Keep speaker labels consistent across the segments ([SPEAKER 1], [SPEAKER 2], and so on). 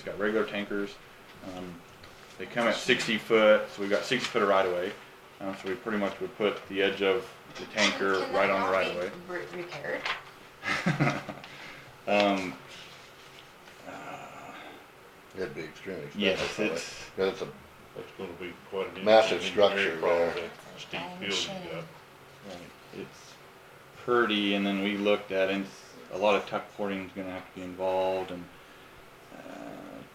[SPEAKER 1] It's got regular tankers. Um, they come at 60 foot, so we've got 60 foot of right of way. Um, so we pretty much would put the edge of the tanker
[SPEAKER 2] Can that
[SPEAKER 1] right on
[SPEAKER 2] not
[SPEAKER 1] the right of
[SPEAKER 2] be
[SPEAKER 1] way.
[SPEAKER 2] re- Repaired?
[SPEAKER 1] Um, uh,
[SPEAKER 3] It'd be extremely
[SPEAKER 1] Yes,
[SPEAKER 3] expensive. probably.
[SPEAKER 1] it's-
[SPEAKER 3] 'Cause it's a,
[SPEAKER 4] That's gonna be quite an.
[SPEAKER 3] Massive
[SPEAKER 4] interesting
[SPEAKER 3] structure
[SPEAKER 4] engineering problem,
[SPEAKER 3] there.
[SPEAKER 4] that Steep
[SPEAKER 2] I'm
[SPEAKER 4] building,
[SPEAKER 2] sure.
[SPEAKER 4] yeah.
[SPEAKER 1] it's pretty, and then we looked at it. and it's- A lot of tuck porting is going to have to be involved, and uh,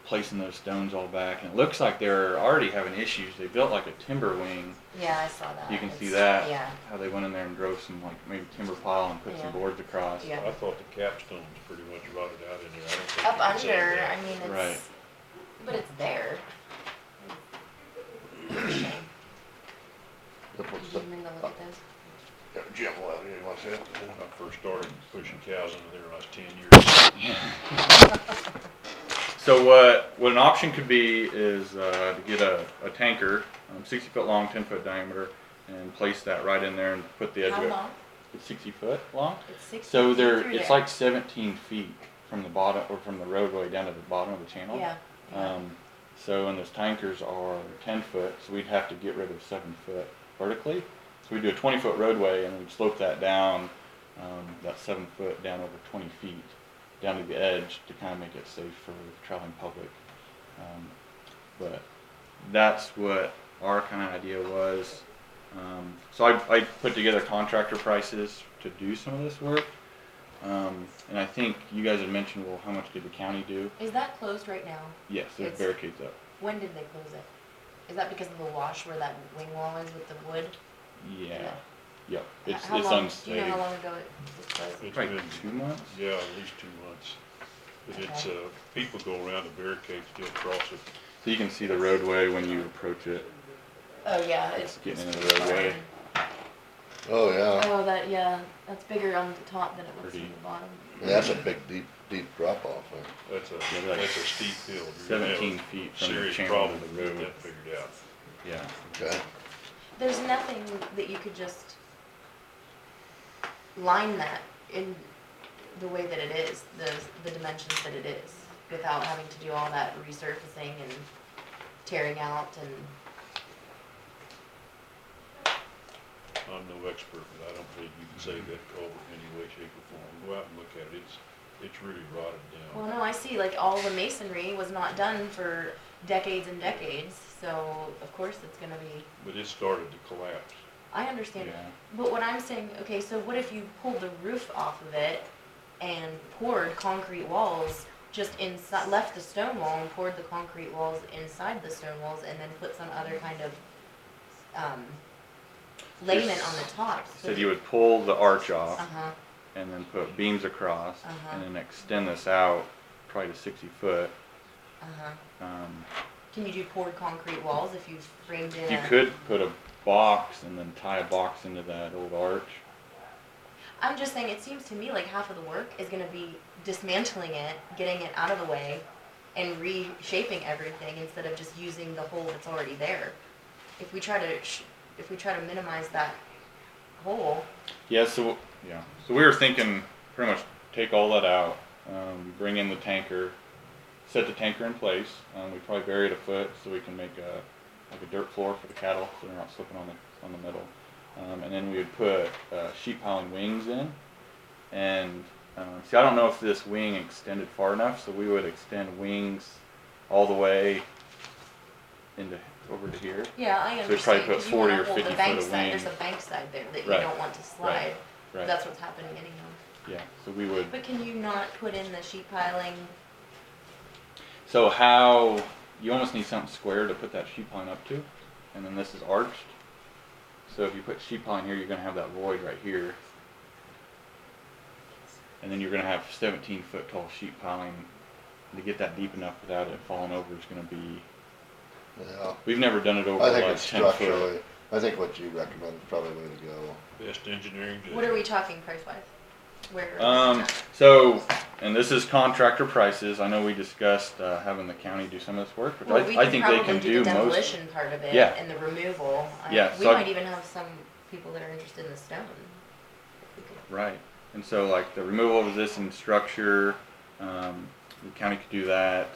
[SPEAKER 1] placing those stones all back. And it looks like they're already having issues. They built like a timber wing.
[SPEAKER 2] Yeah, I saw that.
[SPEAKER 1] You can see
[SPEAKER 2] It's-
[SPEAKER 1] that
[SPEAKER 2] Yeah,
[SPEAKER 1] how they went in there and drove some like maybe timber pile and put
[SPEAKER 2] Yeah.
[SPEAKER 1] some boards across.
[SPEAKER 2] Yeah.
[SPEAKER 4] I thought the capstone's pretty much rotted out in there. I don't think.
[SPEAKER 2] up
[SPEAKER 4] you can save
[SPEAKER 2] under,
[SPEAKER 4] that.
[SPEAKER 2] I mean,
[SPEAKER 1] Right.
[SPEAKER 2] it's, but it's there.
[SPEAKER 3] it
[SPEAKER 2] Did
[SPEAKER 3] puts
[SPEAKER 2] you
[SPEAKER 3] the,
[SPEAKER 2] even go look at those?
[SPEAKER 3] yeah, Jim, well, you want to see it?
[SPEAKER 4] When I first started pushing cows into there last ten years.
[SPEAKER 1] So what what an option could be is uh, to get a, a tanker, um, 60 foot long, 10 foot diameter, and place that right in there and put the edge
[SPEAKER 2] How
[SPEAKER 1] of it.
[SPEAKER 2] long?
[SPEAKER 1] It's 60 foot long.
[SPEAKER 2] It's six.
[SPEAKER 1] So
[SPEAKER 2] feet
[SPEAKER 1] there,
[SPEAKER 2] through
[SPEAKER 1] it's
[SPEAKER 2] there.
[SPEAKER 1] like 17 feet from the bottom or from the roadway down to the bottom of the channel.
[SPEAKER 2] Yeah. yeah.
[SPEAKER 1] Um, so and those tankers are 10 foot, so we'd have to get rid of seven foot vertically. So we do a 20 foot roadway and we'd slope that down, um, that seven foot down over 20 feet, down to the edge to kind of make it safe for the traveling public. Um, but that's what our kind of idea was. Um, so I, I put together contractor prices to do some of this work. Um, and I think you guys had mentioned, well, how much did the county do?
[SPEAKER 2] Is that closed right now?
[SPEAKER 1] Yes, there's
[SPEAKER 2] It's-
[SPEAKER 1] barricades up.
[SPEAKER 2] When did they close it? Is that because of the wash where that wing wall is with the wood?
[SPEAKER 1] Yeah.
[SPEAKER 2] Yeah.
[SPEAKER 1] Yep.
[SPEAKER 2] H-
[SPEAKER 1] It's
[SPEAKER 2] how
[SPEAKER 1] it's
[SPEAKER 2] long-
[SPEAKER 1] unsafe.
[SPEAKER 2] Do you know how long ago it was closed?
[SPEAKER 4] It's
[SPEAKER 1] Probably
[SPEAKER 4] been-
[SPEAKER 1] two months.
[SPEAKER 4] Yeah, at least two months. But it's,
[SPEAKER 2] Okay.
[SPEAKER 4] uh, people go around the barricade, still cross it.
[SPEAKER 1] So you can see the roadway when you approach it.
[SPEAKER 2] Oh, yeah,
[SPEAKER 1] It's
[SPEAKER 2] it's.
[SPEAKER 1] getting into the roadway.
[SPEAKER 3] Oh, yeah.
[SPEAKER 2] Oh, that, yeah, that's bigger on the top than it was on
[SPEAKER 1] Pretty.
[SPEAKER 2] the bottom.
[SPEAKER 3] Yeah, That's a big, deep, deep drop off there.
[SPEAKER 4] That's a,
[SPEAKER 1] Yeah, like
[SPEAKER 4] that's a steep hill. You're gonna have a
[SPEAKER 1] 17 feet from the
[SPEAKER 4] Serious
[SPEAKER 1] channel
[SPEAKER 4] problem
[SPEAKER 1] to
[SPEAKER 4] to
[SPEAKER 1] the
[SPEAKER 4] get
[SPEAKER 1] road.
[SPEAKER 4] that figured out.
[SPEAKER 1] Yeah.
[SPEAKER 3] Okay,
[SPEAKER 2] There's nothing that you could just line that in the way that it is, the, the dimensions that it is, without having to do all that resurfacing and tearing out and,
[SPEAKER 4] I'm no expert, but I don't believe you can save that culvert in any way, shape, or form. Go out and look at it, it's, it's really rotted
[SPEAKER 2] well,
[SPEAKER 4] down.
[SPEAKER 2] no, I see, like, all the masonry was not done for decades and decades, so of course it's gonna be,
[SPEAKER 4] But it started to collapse.
[SPEAKER 2] I understand
[SPEAKER 1] Yeah.
[SPEAKER 2] But what I'm saying, okay, so what if you pulled the roof off of it and poured concrete walls just inside, left the stone wall and poured the concrete walls inside the stone walls and then put some other kind of, um, layment on the top? so
[SPEAKER 1] Said you would pull the arch off
[SPEAKER 2] Uh-huh,
[SPEAKER 1] and then put beams across
[SPEAKER 2] Uh-huh.
[SPEAKER 1] and then extend this out probably to 60 foot.
[SPEAKER 2] uh-huh.
[SPEAKER 1] Um,
[SPEAKER 2] Can you do poured concrete walls if you framed in a?
[SPEAKER 1] You could put a box and then tie a box into that old arch.
[SPEAKER 2] I'm just saying, it seems to me like half of the work is gonna be dismantling it, getting it out of the way, and reshaping everything instead of just using the hole that's already there. If we try to, sh- if we try to minimize that hole,
[SPEAKER 1] Yeah, so yeah, so we were thinking pretty much take all that out, um, bring in the tanker, set the tanker in place. Um, we probably bury it a foot so we can make a like a dirt floor for the cattle so they're not slipping on the on the middle. Um, and then we would put uh, sheep piling wings in. And um, see, I don't know if this wing extended far enough, so we would extend wings all the way into over to here.
[SPEAKER 2] yeah, I
[SPEAKER 1] So we probably
[SPEAKER 2] understand.
[SPEAKER 1] put
[SPEAKER 2] 'cause you wanna
[SPEAKER 1] 40 or
[SPEAKER 2] hold the
[SPEAKER 1] 50 foot
[SPEAKER 2] bank
[SPEAKER 1] of
[SPEAKER 2] side- There's
[SPEAKER 1] wing.
[SPEAKER 2] a bank side there that you
[SPEAKER 1] Right,
[SPEAKER 2] don't want to slide.
[SPEAKER 1] right, Right.
[SPEAKER 2] That's what's happening anyhow.
[SPEAKER 1] yeah. So we would.
[SPEAKER 2] But can you not put in the sheet piling?
[SPEAKER 1] So how you almost need something square to put that sheep line up to, and then this is arched. So if you put sheep line here, you're gonna have that void right here, and then you're gonna have 17 foot tall sheep piling. To get that deep enough without it falling over is gonna be.
[SPEAKER 3] yeah.
[SPEAKER 1] We've never done it over
[SPEAKER 3] I think
[SPEAKER 1] like
[SPEAKER 3] it's
[SPEAKER 1] 10 foot.
[SPEAKER 3] structurally, I think what you recommend is probably the way to go.
[SPEAKER 4] Best engineering. to-
[SPEAKER 2] What are we talking price wise? Where?
[SPEAKER 1] Um, so, and this is contractor prices. I know we discussed uh, having the county do some of this work, but
[SPEAKER 2] Well, we
[SPEAKER 1] I, I think they
[SPEAKER 2] probably
[SPEAKER 1] can
[SPEAKER 2] do
[SPEAKER 1] do
[SPEAKER 2] the
[SPEAKER 1] most.
[SPEAKER 2] demolition part of it
[SPEAKER 1] Yeah.
[SPEAKER 2] and the removal. I-
[SPEAKER 1] Yeah,
[SPEAKER 2] we
[SPEAKER 1] so I-
[SPEAKER 2] might even have some people that are interested in the stone. We could-
[SPEAKER 1] Right. And so like the removal of this and structure, um, the county could do that.